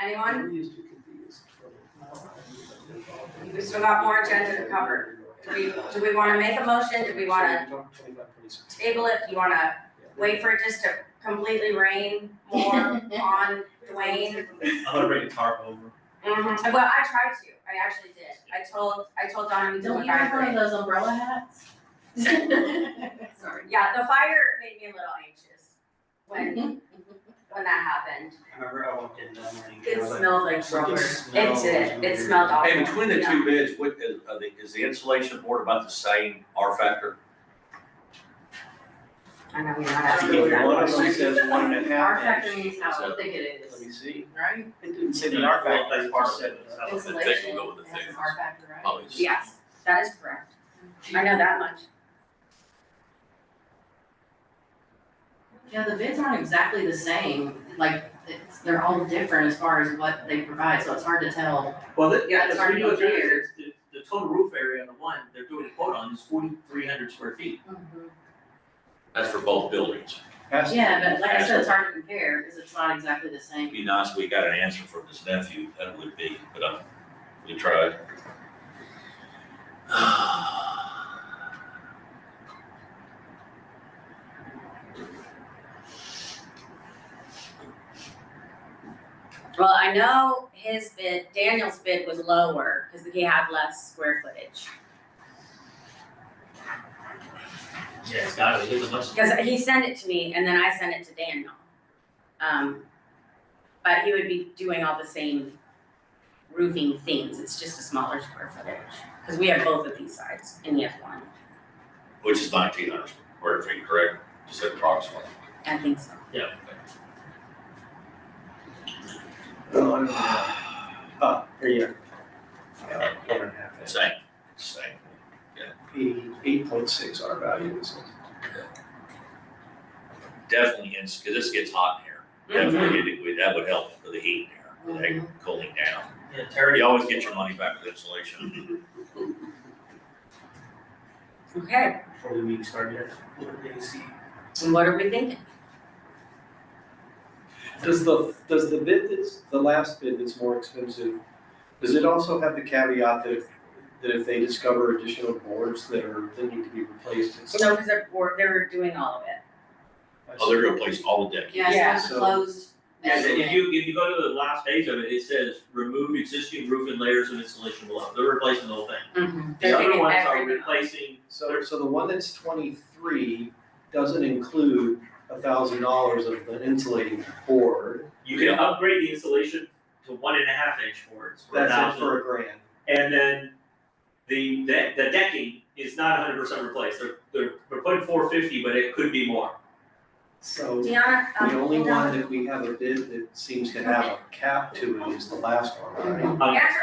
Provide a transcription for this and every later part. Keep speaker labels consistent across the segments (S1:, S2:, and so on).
S1: Anyone? We still got more agenda to cover. Do we, do we wanna make a motion? Do we wanna table it? Do you wanna wait for it just to completely rain more on Dwayne?
S2: I'm gonna bring a tarp over.
S1: Mhm. Well, I tried to. I actually did. I told, I told Donna we did
S3: Don't
S1: a
S3: you have one of
S1: fire.
S3: those umbrella hats?
S1: Sorry. Yeah, the fire made me a little anxious when, when that happened.
S4: I remember I walked in that morning.
S1: It smelled like
S4: Something
S1: rubber. It
S4: smells
S1: did. It
S4: weird.
S1: smelled awful.
S5: Hey, between the
S1: Yeah.
S5: two bids, what, is, are the- is the insulation board about the same R factor?
S1: I know, we're not
S4: I
S1: asking
S4: think
S1: that
S4: One of them
S1: question.
S4: says one and a
S3: Our
S4: half
S3: factor
S4: inch.
S3: means how thick it
S4: Let
S3: is,
S4: me see.
S3: right?
S4: It didn't say the R factor, it just said, uh,
S5: I would think
S3: Insulation
S5: we'll go with the Oh.
S3: has an
S5: thick.
S3: R factor, right?
S5: Probably the same.
S1: Yes, that is correct. I know that much.
S3: Yeah, the bids aren't exactly the same, like, it's, they're all different as far as what they provide, so it's hard to tell.
S2: Well, that,
S3: Yeah,
S2: yeah,
S3: it's
S2: that's what
S3: already
S2: you're doing,
S3: cleared.
S2: is the, the total roof area on the one, they're doing a quote on is forty-three hundred square feet.
S3: Mm-hmm.
S5: That's for both buildings.
S4: has to be.
S3: Yeah, but like I said, it's hard to compare, because it's not exactly the same.
S5: It'd be nice if we got an answer from his nephew, that would be, but uh, we tried.
S1: Well, I know his bid, Daniel's bid was lower because he had less square footage.
S2: Yeah, it's gotta be, it was much.
S1: Because he sent it to me and then I sent it to Daniel. Um, but he would be doing all the same roofing things, it's just a smaller square footage. Because we have both of these sides and he has one,
S5: Which is nineteen hundred square feet, correct? Just approximately.
S1: I think so.
S4: Oh, I don't know. Oh, here you are. Yeah, one and a half inch.
S5: Same, same.
S4: Eighty, eight point six R value is
S5: Definitely, because this gets hot in
S1: Mm-hmm.
S5: here. Definitely, it- it- that would help for the heat in here, the cooling down.
S2: Yeah, Terry.
S5: You always get your money back with insulation.
S1: Okay,
S4: before the week started. What did they see?
S1: and what are we thinking?
S4: Does the, does the bid that's, the last bid that's more expensive, does it also have the caveat that if, that if they discover additional boards that are, that need to be replaced? it's-
S1: No, because they're, we're- they're doing all of it.
S5: Oh, they're gonna place all the deck.
S3: Yeah,
S1: Yeah,
S3: it's
S4: so-
S3: closed.
S2: Yeah, if you, if you go to the last page of it, it says remove existing roof and layers of insulation below, they're replacing the whole thing.
S3: Mhm.
S1: They're
S2: The other
S1: taking
S2: ones are
S1: everything off.
S2: replacing,
S4: So, so the one that's twenty-three doesn't include a thousand dollars of the insulating board,
S2: you can upgrade the insulation to one and a half inch boards for a
S4: that's it
S2: thousand.
S4: for a grand.
S2: And then the, the, the decking is not hundred percent replaced, they're, they're, they're putting four fifty, but it could be more.
S4: So the
S1: Deanna, um,
S4: only
S1: hold on.
S4: one that we have a bid that seems to have a cap to it is the last one, uh,
S1: Answer your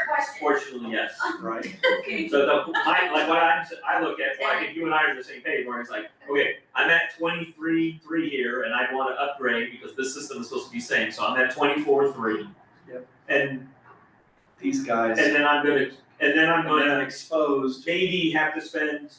S1: question.
S2: Unfortunately, yes.
S4: right? Right?
S2: So the, I, like what I'm, I look at, like, if you and I are on the same page, where it's like, okay, I'm at twenty-three, three here, and I wanna upgrade, because this system is supposed to be same, so I'm at twenty-four, three.
S4: Yep.
S2: And,
S4: These guys.
S2: and uh, then I'm gonna, and then I'm
S4: And then
S2: gonna
S4: exposed
S2: maybe have to spend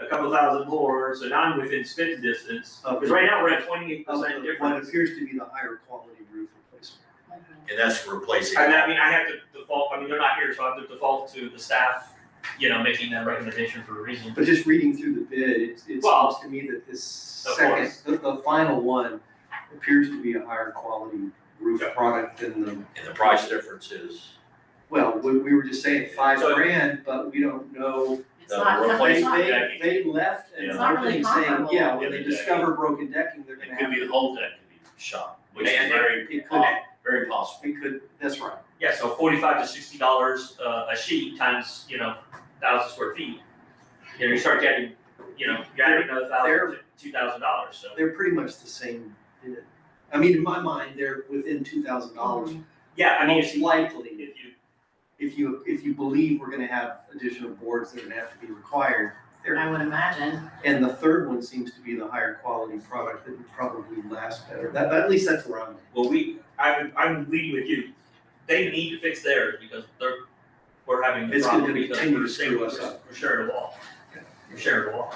S2: a couple thousand more, so now I'm within spit distance, because right now we're at twenty-eight
S4: of
S2: percent
S4: the- what
S2: difference.
S4: appears to be the higher quality roof replacement.
S3: Mhm.
S5: And that's replacing.
S2: And I mean, I have to default, I mean, they're not here, so I have to default to the staff, you know, making that recommendation for a reason.
S4: But just reading through the bid, it, it
S2: Well,
S4: seems to me that this
S2: of
S4: second,
S2: course.
S4: the, the final one appears to be a higher quality roof
S5: Yeah.
S4: product than the,
S5: And the price difference is.
S4: well, we, we were just saying five
S2: So-
S4: grand, but we don't know.
S3: It's
S5: The
S3: not, it's
S4: They,
S3: not-
S5: replacement-
S4: they, they left and
S5: It's
S3: not really
S4: opening saying,
S3: comparable.
S4: yeah, when
S5: Yeah,
S4: they
S5: they-
S4: discover broken decking, they're gonna
S5: It could
S4: have.
S5: be the whole deck could be shot, which is
S2: And-
S5: very, um,
S4: It could,
S5: po- very possible.
S4: it could, that's right.
S2: Yeah, so forty-five to sixty dollars uh, a sheet times, you know, thousand square feet. You know, you start getting, you know, you add another thousand, two thousand dollars, so.
S4: They're pretty much the same bid. I mean, in my mind, they're within two thousand dollars,
S2: Yeah, I mean, if
S4: most
S2: you,
S4: likely.
S2: if you,
S4: if you, if you believe we're gonna have additional boards that are gonna have to be required.
S3: I would imagine,
S4: And the third one seems to be the higher quality product that would probably last better. That, at least that's where I'm at.
S2: well, we, I'm, I'm leading with you. They need to fix theirs because they're, we're having the
S4: It's gonna
S2: problem because
S4: continue to
S2: we're sharing,
S4: screw us
S2: we're-
S4: up.
S2: we're sharing a wall. We're sharing a wall.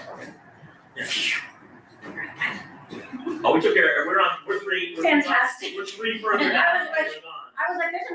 S2: Oh, we took care, we're on, we're three, we're.
S1: Fantastic.
S2: We're three further
S1: I
S2: down,
S1: was like-
S2: we're gone.
S1: I was like, there's a